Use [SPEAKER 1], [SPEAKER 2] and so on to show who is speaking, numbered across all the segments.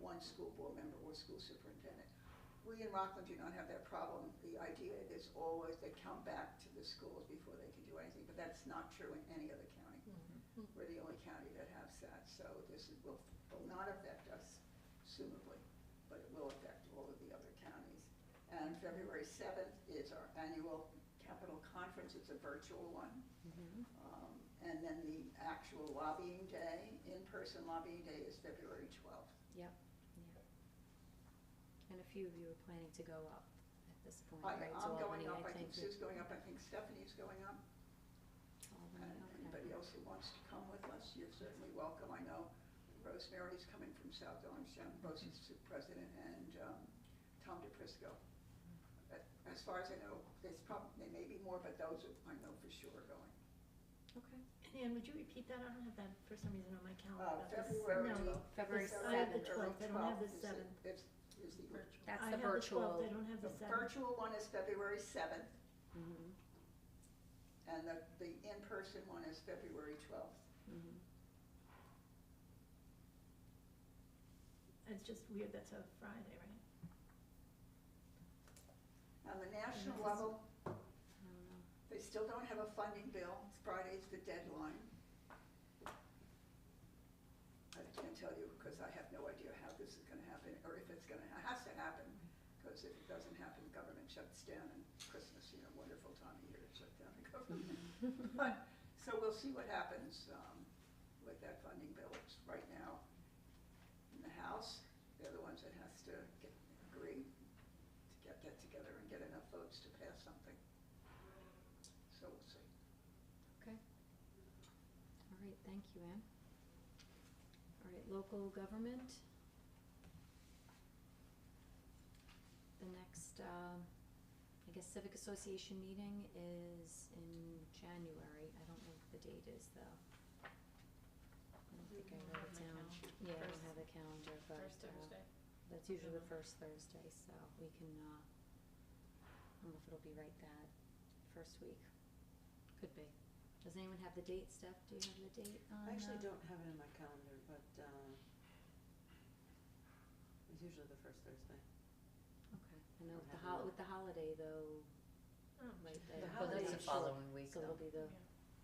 [SPEAKER 1] one school board member or school superintendent. We in Rockland do not have that problem. The idea is always they come back to the schools before they can do anything, but that's not true in any other county. We're the only county that has that, so this is- will, will not affect us presumably, but it will affect all of the other counties. And February seventh is our annual capital conference, it's a virtual one. Um, And then the actual lobbying day, in-person lobbying day is February twelfth.
[SPEAKER 2] And a few of you are planning to go up at this point,
[SPEAKER 1] I,
[SPEAKER 2] right, to
[SPEAKER 1] I'm going
[SPEAKER 2] Albany, I
[SPEAKER 1] up, I
[SPEAKER 2] think.
[SPEAKER 1] think Sue's going up, I think Stephanie's going up. And
[SPEAKER 2] Albany, okay.
[SPEAKER 1] anybody else who wants to come with us, you're certainly welcome. I know Rosemary's coming from South Orange, both as the president and um, Tom DePrisco. But As far as I know, there's probably, there may be more, but those are- I know for sure are going.
[SPEAKER 2] Okay,
[SPEAKER 3] Anne, would you repeat that? I don't have that for some reason on my
[SPEAKER 1] Uh,
[SPEAKER 3] calendar. This-
[SPEAKER 1] February
[SPEAKER 3] no,
[SPEAKER 1] twelfth.
[SPEAKER 2] February
[SPEAKER 3] I have the
[SPEAKER 2] seventh,
[SPEAKER 3] 12th, I don't have the 7th.
[SPEAKER 1] Is, is the,
[SPEAKER 2] that's
[SPEAKER 3] I
[SPEAKER 2] the
[SPEAKER 3] have
[SPEAKER 2] virtual.
[SPEAKER 3] 12th, I don't have
[SPEAKER 1] the
[SPEAKER 3] the seventh.
[SPEAKER 1] virtual one is February seventh,
[SPEAKER 2] Mhm,
[SPEAKER 1] and the, the in-person one is February twelfth.
[SPEAKER 2] mhm.
[SPEAKER 3] It's just weird, that's a Friday, right?
[SPEAKER 1] On the national
[SPEAKER 3] this is-
[SPEAKER 1] level,
[SPEAKER 2] I don't know.
[SPEAKER 1] They still don't have a funding bill. Friday's the deadline. I can't tell you because I have no idea how this is gonna happen or if it's gonna, it has to happen. Because if it doesn't happen, government shuts down and Christmas, you know, wonderful time of year to shut down the government. But, so we'll see what happens, um, with that funding bill. It's right now in the House. They're the ones that has to get, agree to get that together and get enough votes to pass something. So we'll see.
[SPEAKER 2] All right, thank you, Anne. All right, local government. The next, um, I guess civic association meeting is in January, I don't know what the date is though. I don't think I wrote it down. Yeah, I don't have a calendar, but, uh, that's usually the first Thursday, so we can, uh, I don't know if it'll be right that first week. Could be. Does anyone have the date, Steph? Do you have the date on?
[SPEAKER 4] I actually
[SPEAKER 2] uh,
[SPEAKER 4] don't have it in my calendar, but, uh, it's usually the first Thursday.
[SPEAKER 2] Okay, I know
[SPEAKER 4] Or
[SPEAKER 2] with the
[SPEAKER 4] have
[SPEAKER 2] hol-
[SPEAKER 4] it.
[SPEAKER 2] with the holiday though,
[SPEAKER 3] Oh,
[SPEAKER 2] might they?
[SPEAKER 3] yeah.
[SPEAKER 4] The
[SPEAKER 5] Well, that's
[SPEAKER 4] holiday
[SPEAKER 5] the
[SPEAKER 4] is
[SPEAKER 5] following week
[SPEAKER 2] So it'll
[SPEAKER 5] though.
[SPEAKER 2] be the,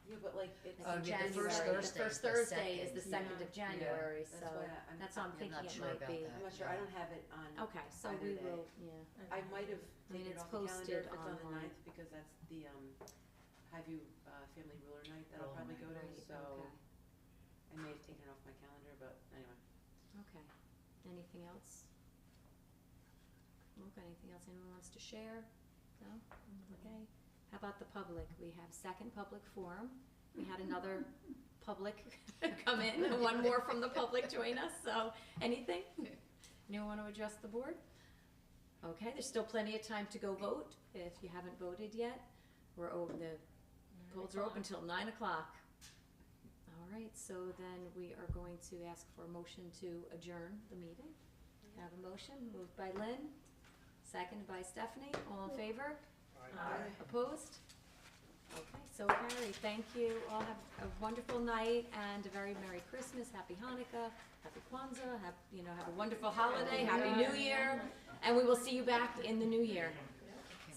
[SPEAKER 4] Yeah, but like, it's.
[SPEAKER 5] Oh,
[SPEAKER 2] that's in
[SPEAKER 5] yeah,
[SPEAKER 2] January.
[SPEAKER 5] the first Thursday
[SPEAKER 2] The
[SPEAKER 5] is
[SPEAKER 2] first
[SPEAKER 5] the
[SPEAKER 2] Thursday is the second
[SPEAKER 3] second.
[SPEAKER 2] of
[SPEAKER 5] Yeah.
[SPEAKER 2] January, so
[SPEAKER 4] That's why I- I'm,
[SPEAKER 2] that's what I'm
[SPEAKER 5] I'm
[SPEAKER 2] thinking
[SPEAKER 5] not
[SPEAKER 2] it
[SPEAKER 5] sure
[SPEAKER 2] might
[SPEAKER 5] about
[SPEAKER 2] be.
[SPEAKER 5] that.
[SPEAKER 4] I'm not sure, I don't have it on,
[SPEAKER 2] Okay, so
[SPEAKER 4] Either
[SPEAKER 2] we
[SPEAKER 4] day.
[SPEAKER 2] will, yeah,
[SPEAKER 4] I might have
[SPEAKER 2] Oh. I mean,
[SPEAKER 4] taken it
[SPEAKER 2] it's
[SPEAKER 4] off the calendar
[SPEAKER 2] posted
[SPEAKER 4] if it's on the
[SPEAKER 2] online.
[SPEAKER 4] ninth, because that's the, um, Highview, uh, Family Ruler Night that I'll
[SPEAKER 5] Ruler
[SPEAKER 4] probably
[SPEAKER 5] night,
[SPEAKER 4] go to,
[SPEAKER 2] right,
[SPEAKER 4] so
[SPEAKER 2] okay,
[SPEAKER 4] I may have taken it off my calendar, but anyway.
[SPEAKER 2] okay. Anything else? Look, anything else anyone wants to share? No? Okay. How about the public? We have second public forum. We had another public come in, and one more from the public join us, so anything? Anyone want to address the board? Okay, there's still plenty of time to go vote if you haven't voted yet. We're open, the polls are open till nine o'clock. All right, so then we are going to ask for a motion to adjourn the meeting. Have a motion, moved by Lynn, seconded by Stephanie, all in favor? Uh,
[SPEAKER 3] Aye.
[SPEAKER 2] Opposed? Okay, so carried. Thank you. All have a wonderful night and a very Merry Christmas, Happy Hanukkah, Happy Kwanzaa, have, you know, have a wonderful holiday, Happy New Year. And we will see you back in the new year.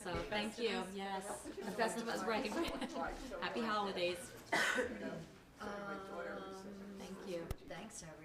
[SPEAKER 2] So, thank you. Yes. The Festivus, right. Happy holidays. Um,
[SPEAKER 1] You know, sort of my daughter was-
[SPEAKER 2] Thank you.
[SPEAKER 5] Thanks, everyone.